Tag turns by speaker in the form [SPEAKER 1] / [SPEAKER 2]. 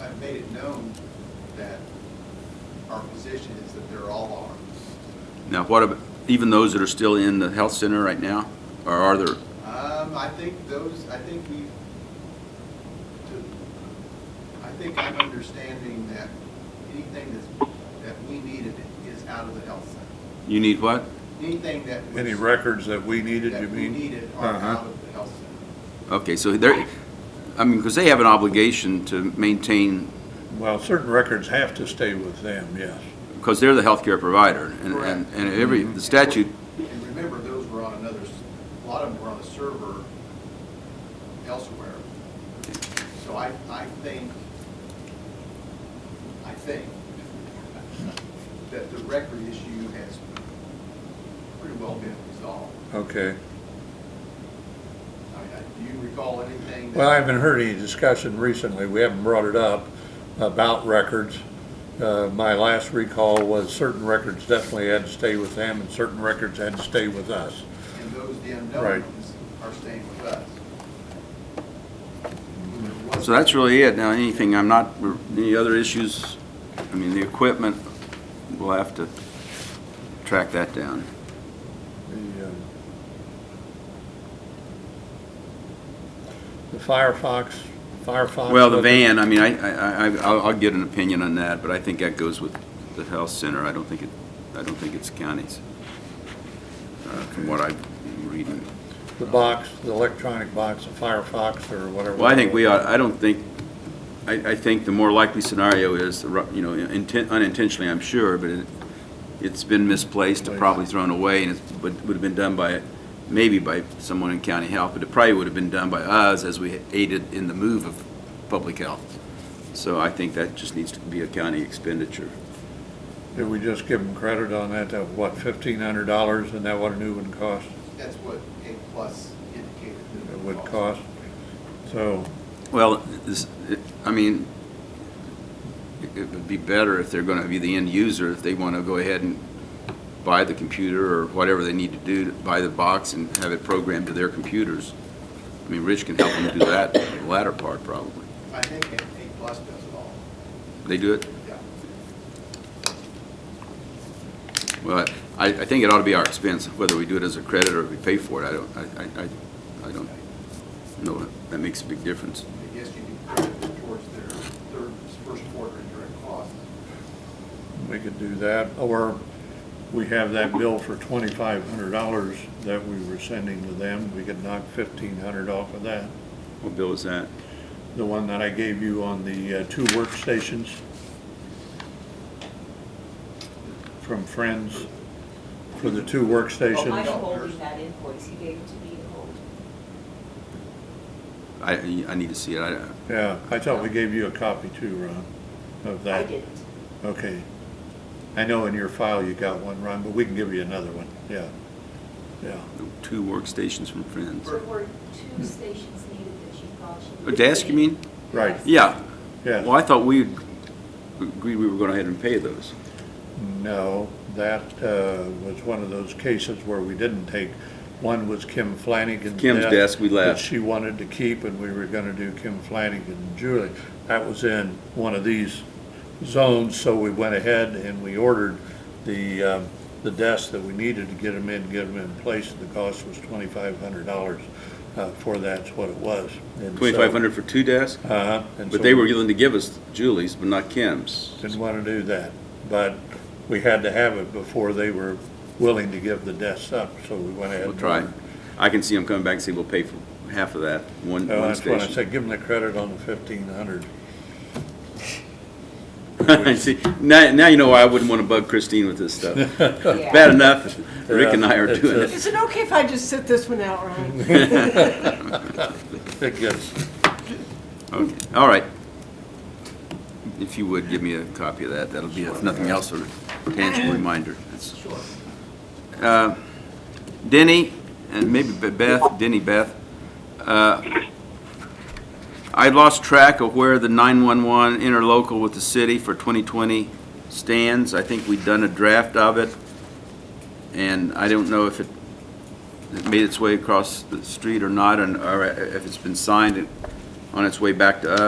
[SPEAKER 1] I've made it known that our position is that they're all
[SPEAKER 2] Now, what about, even those that are still in the health center right now, or are there,
[SPEAKER 1] armed. Um, I think those, I think we, I think I'm understanding that anything that's, that we needed is out of the health center.
[SPEAKER 2] you need what?
[SPEAKER 1] Anything that was.
[SPEAKER 3] Any records that we needed, you
[SPEAKER 1] That we
[SPEAKER 3] mean?
[SPEAKER 1] needed are
[SPEAKER 3] Uh-huh.
[SPEAKER 1] out of the health center.
[SPEAKER 2] Okay, so they're, I mean, because they have an obligation to maintain,
[SPEAKER 3] Well, certain records have to stay with them, yes.
[SPEAKER 2] because they're the healthcare provider, and, and,
[SPEAKER 1] Correct.
[SPEAKER 2] and every, the statute,
[SPEAKER 1] And remember, those were on another, s- a lot of them were on a server elsewhere. So I, I think, I think that the record issue has pretty well been resolved. I
[SPEAKER 3] Okay.
[SPEAKER 1] mean, I- do you recall anything? that-
[SPEAKER 3] Well, I haven't heard any discussion recently, we haven't brought it up, about records. Uh, My last recall was certain records definitely had to stay with them, and certain records had to stay with us.
[SPEAKER 1] And those, the
[SPEAKER 3] Right.
[SPEAKER 1] unknowns are staying with us. There was-
[SPEAKER 2] so that's really it. Now, anything, I'm not, any other issues? I mean, the equipment, we'll have to track that down.
[SPEAKER 3] The, um, The Firefox, Firefox.
[SPEAKER 2] Well, the
[SPEAKER 3] was it?
[SPEAKER 2] van, I mean, I, I, I- I'll, I'll get an opinion on that, but I think that goes with the health center. I don't think it, I don't think it's counties. uh, From what I'm reading.
[SPEAKER 3] The box, the electronic box, the Firefox or whatever.
[SPEAKER 2] Well, I think we ought, I don't think, I, I think the more likely scenario is, the ru- you know, inten- unintentionally, I'm sure, but it, it's been misplaced, and probably thrown away, and it would, would have been done by, maybe by someone in county health, but it probably would have been done by us as we aided in the move of public health. So I think that just needs to be a county expenditure.
[SPEAKER 3] Did we just give them credit on that, that what, fifteen hundred dollars, and that what a new one cost,
[SPEAKER 1] That's what A plus indicated. that
[SPEAKER 3] it would cost? So,
[SPEAKER 2] Well, this, it- I mean, it it would be better if they're gonna be the end user, if they wanna go ahead and buy the computer or whatever they need to do, to buy the box and have it programmed to their computers. I mean, Rich can help them do that, the latter part probably.
[SPEAKER 1] I think A A plus does it all,
[SPEAKER 2] They do it?
[SPEAKER 1] yeah.
[SPEAKER 2] Well, I, I think it ought to be our expense, whether we do it as a credit or we pay for it, I don't, I, I- I, I don't know, if that makes a big difference.
[SPEAKER 1] I guess you could credit it towards their third, first quarter indirect costs.
[SPEAKER 3] we could do that, or we have that bill for twenty-five hundred dollars that we were sending to them, we could knock fifteen hundred off of that.
[SPEAKER 2] What bill is that?
[SPEAKER 3] The one that I gave you on the uh, two workstations from Friends, for the two
[SPEAKER 4] Well,
[SPEAKER 3] workstations.
[SPEAKER 4] Michael holding that invoice, he gave it to me to hold.
[SPEAKER 2] I, I need to see it, I,
[SPEAKER 3] Yeah, I thought we gave you a copy too, Ron, of that.
[SPEAKER 4] I didn't.
[SPEAKER 3] Okay. I know in your file you got one, Ron, but we can give you another one, yeah. Yeah,
[SPEAKER 2] two workstations from Friends.
[SPEAKER 4] There were two stations needed that you thought you.
[SPEAKER 2] A desk, you mean?
[SPEAKER 3] Right.
[SPEAKER 2] Yeah. Well,
[SPEAKER 3] yeah.
[SPEAKER 2] I thought we agreed we were going ahead and pay those.
[SPEAKER 3] No, that uh, was one of those cases where we didn't take, one was Kim Flanagan's desk.
[SPEAKER 2] Kim's desk, we left.
[SPEAKER 3] That she wanted to keep, and we were gonna do Kim Flanagan and Julie. That was in one of these zones, so we went ahead and we ordered the, um, the desks that we needed to get them in, get them in place. The cost was twenty-five hundred dollars uh, for that's what it was. And so-
[SPEAKER 2] Twenty-five hundred for two desks?
[SPEAKER 3] Uh-huh. and
[SPEAKER 2] But
[SPEAKER 3] so
[SPEAKER 2] they
[SPEAKER 3] we
[SPEAKER 2] were willing to give us Julie's, but not Kim's.
[SPEAKER 3] Didn't want to do that, but we had to have it before they were willing to give the desks up, so we went ahead.
[SPEAKER 2] We'll
[SPEAKER 3] and- Oh,
[SPEAKER 2] try. I can see them coming back and say, we'll pay for half of that, one,
[SPEAKER 3] No,
[SPEAKER 2] one
[SPEAKER 3] Oh, that's what I
[SPEAKER 2] station.
[SPEAKER 3] said, give them the credit on the fifteen hundred.
[SPEAKER 2] See, now, now you know why I wouldn't want to bug Christine with this stuff.
[SPEAKER 4] Yeah.
[SPEAKER 2] Bad enough, Rick and I are
[SPEAKER 3] Yeah, it's
[SPEAKER 2] doing
[SPEAKER 3] a-
[SPEAKER 2] it.
[SPEAKER 5] Is it okay if I just sit this one out, Ryan?
[SPEAKER 3] It gets,
[SPEAKER 2] Okay, all right. If you would, give me a copy of that, that'll be, if nothing else, a tangible reminder. That's- Uh, Denny, and maybe Be- Beth, Denny, Beth, uh, I lost track of where the 911 interlocal with the city for 2020 stands. I think we'd done a draft of it, and I don't know if it it made its way across the street or not, and, or if it's been signed on its way back to us.